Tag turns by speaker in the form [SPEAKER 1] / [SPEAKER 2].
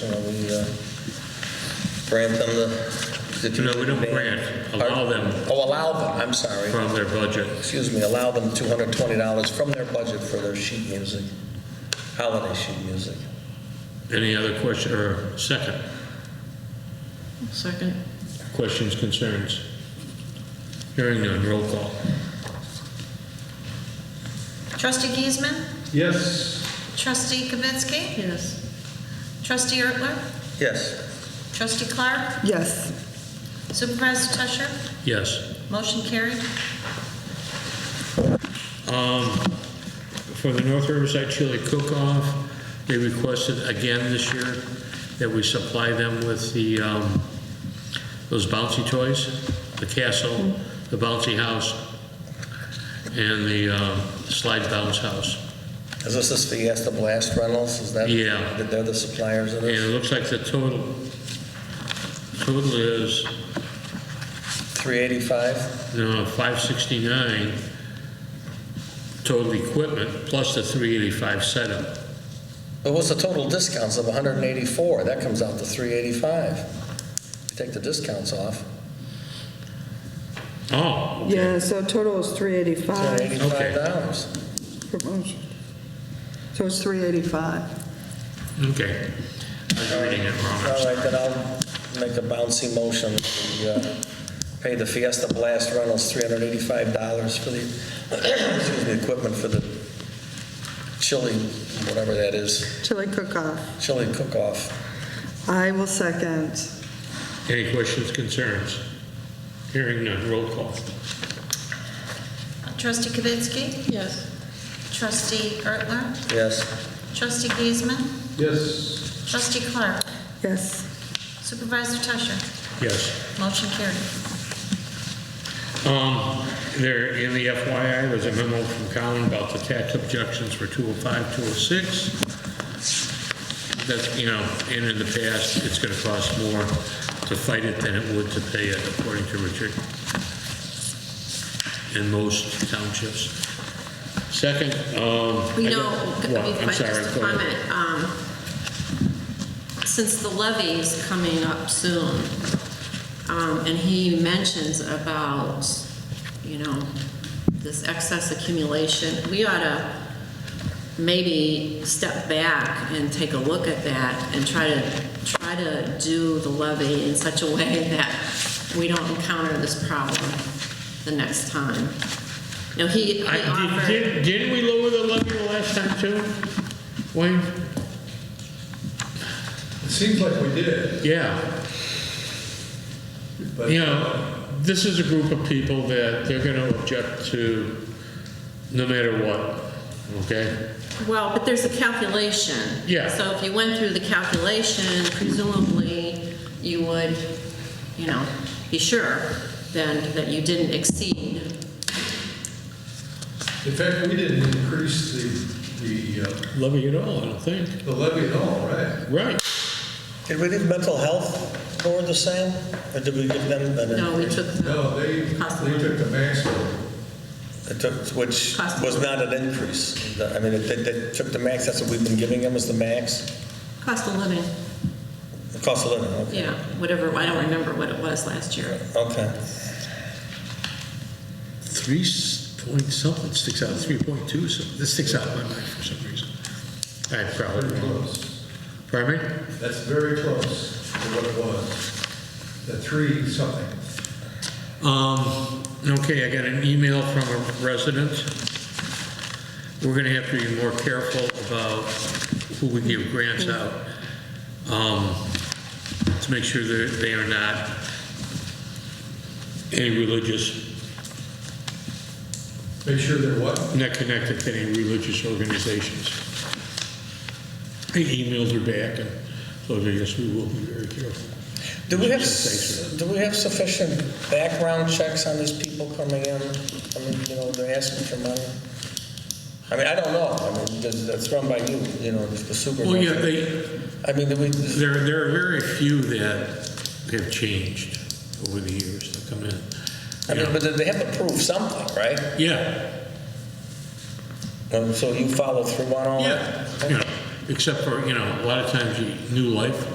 [SPEAKER 1] uh, grant them the... the-
[SPEAKER 2] No, we don't grant, allow them
[SPEAKER 1] Oh, allow them, I'm sorry.
[SPEAKER 2] from their budget.
[SPEAKER 1] Excuse me, allow them $220 from their budget for their sheet music, holiday sheet music.
[SPEAKER 2] Any other question, or second,
[SPEAKER 3] Second.
[SPEAKER 2] questions, concerns? Hearing none, roll call.
[SPEAKER 4] Trustee Giesman?
[SPEAKER 5] Yes.
[SPEAKER 4] Trustee Kavitsky?
[SPEAKER 3] Yes.
[SPEAKER 4] Trustee Ertler?
[SPEAKER 1] Yes,
[SPEAKER 4] Trustee Clark?
[SPEAKER 3] Yes.
[SPEAKER 4] Supervisor Tusher?
[SPEAKER 2] Yes.
[SPEAKER 4] Motion carried.
[SPEAKER 2] For the North Riverside Chili Cook-Off, they requested again this year that we supply them with the, um, those bouncy toys, the castle, the bouncy house, and the um, slide bounce house.
[SPEAKER 1] is this this Fiesta Blast Rentals? Is that?
[SPEAKER 2] Yeah.
[SPEAKER 1] that They're the suppliers of
[SPEAKER 2] And
[SPEAKER 1] this?
[SPEAKER 2] it looks like the total, total is,
[SPEAKER 1] 385?
[SPEAKER 2] no, 569 total equipment, plus the 385 setup.
[SPEAKER 1] But what's the total discounts of 184? That comes out to 385. Take the discounts off.
[SPEAKER 2] Oh, okay.
[SPEAKER 6] Yeah, so total is 385
[SPEAKER 1] $385.
[SPEAKER 6] for motion. So it's 385.
[SPEAKER 2] Okay. I was reading it wrong. I'm
[SPEAKER 1] All
[SPEAKER 2] sorry.
[SPEAKER 1] right, then I'll make a bouncy motion to uh, pay the Fiesta Blast Rentals $385 for the, excuse me, equipment for the chili, whatever that is,
[SPEAKER 6] Chili cook-off.
[SPEAKER 1] chili cook-off.
[SPEAKER 6] I will second.
[SPEAKER 2] Any questions, concerns? Hearing none, roll call.
[SPEAKER 4] Trustee Kavitsky?
[SPEAKER 3] Yes.
[SPEAKER 4] Trustee Ertler?
[SPEAKER 1] Yes,
[SPEAKER 4] Trustee Giesman?
[SPEAKER 5] Yes.
[SPEAKER 4] Trustee Clark?
[SPEAKER 6] Yes.
[SPEAKER 4] Supervisor Tusher?
[SPEAKER 2] Yes.
[SPEAKER 4] Motion carried.
[SPEAKER 2] Um, There, in the FYI, was a memo from Colin about the tax objections for 205, 206. That, you know, and in the past, it's going to cost more to fight it than it would to pay it, according to Richard, in most townships. Second, um...
[SPEAKER 7] We
[SPEAKER 2] I
[SPEAKER 7] know,
[SPEAKER 2] got-
[SPEAKER 7] I mean,
[SPEAKER 2] well, I'm
[SPEAKER 7] just
[SPEAKER 2] sorry,
[SPEAKER 7] a
[SPEAKER 2] go ahead.
[SPEAKER 7] comment, um, since the levy is coming up soon, um, and he mentions about, you know, this excess accumulation, we ought to maybe step back and take a look at that and try to, try to do the levy in such a way that we don't encounter this problem the next time. Now, he he
[SPEAKER 2] I-
[SPEAKER 7] offered.
[SPEAKER 2] did- Didn't didn't we lower the levy the last time too? Wayne?
[SPEAKER 5] It seems like we did,
[SPEAKER 2] Yeah,
[SPEAKER 5] but.
[SPEAKER 2] you know, this is a group of people that they're going to object to no matter what, okay?
[SPEAKER 7] Well, but there's a calculation.
[SPEAKER 2] Yeah.
[SPEAKER 7] So if you went through the calculation, presumably you would, you know, be sure then that you didn't exceed.
[SPEAKER 5] In fact, we didn't increase the, the, uh,
[SPEAKER 2] Levy at all, I don't think.
[SPEAKER 5] the levy at all, right?
[SPEAKER 2] Right,
[SPEAKER 1] Did we leave mental health toward the same, or did we give them an
[SPEAKER 7] No, we took
[SPEAKER 5] No,
[SPEAKER 7] the
[SPEAKER 5] they,
[SPEAKER 7] Cost
[SPEAKER 5] they took the maximum.
[SPEAKER 1] It took- Which
[SPEAKER 7] Cost.
[SPEAKER 1] was not an increase. The- I mean, it- it it took the max, that's what we've been giving them, is the max,
[SPEAKER 7] cost of living,
[SPEAKER 1] the cost of living, okay.
[SPEAKER 7] yeah, whatever, I don't remember what it was last year.
[SPEAKER 1] Okay.
[SPEAKER 2] three s- point something sticks out, 3.2, so this sticks out in my mind for some reason. I
[SPEAKER 5] Very
[SPEAKER 2] probably,
[SPEAKER 5] close.
[SPEAKER 2] pardon me?
[SPEAKER 5] That's very close to what it was. The three something.
[SPEAKER 2] Um, okay, I got an email from a resident. We're gonna have to be more careful about who we give grants out, um, to make sure that they are not any religious,
[SPEAKER 5] Make sure they're what?
[SPEAKER 2] not connected to any religious organizations. The emails are back, and so I guess we will be very careful.
[SPEAKER 1] Do we have,
[SPEAKER 2] Thanks
[SPEAKER 1] do we have sufficient background checks on these people coming in? I mean, you know, they're asking for money. I mean, I don't know, I mean, that's that's run by you, you know, the
[SPEAKER 2] Well, Oh, yeah,
[SPEAKER 1] supervisor.
[SPEAKER 2] they,
[SPEAKER 1] I mean, do we,
[SPEAKER 2] There, there are very few that have changed over the years that come in.
[SPEAKER 1] I mean,
[SPEAKER 2] You know,
[SPEAKER 1] but they have to prove something, right?
[SPEAKER 2] Yeah,
[SPEAKER 1] Um, So you follow through on all that?
[SPEAKER 2] yeah, you know, except for, you know, a lot of times you, new life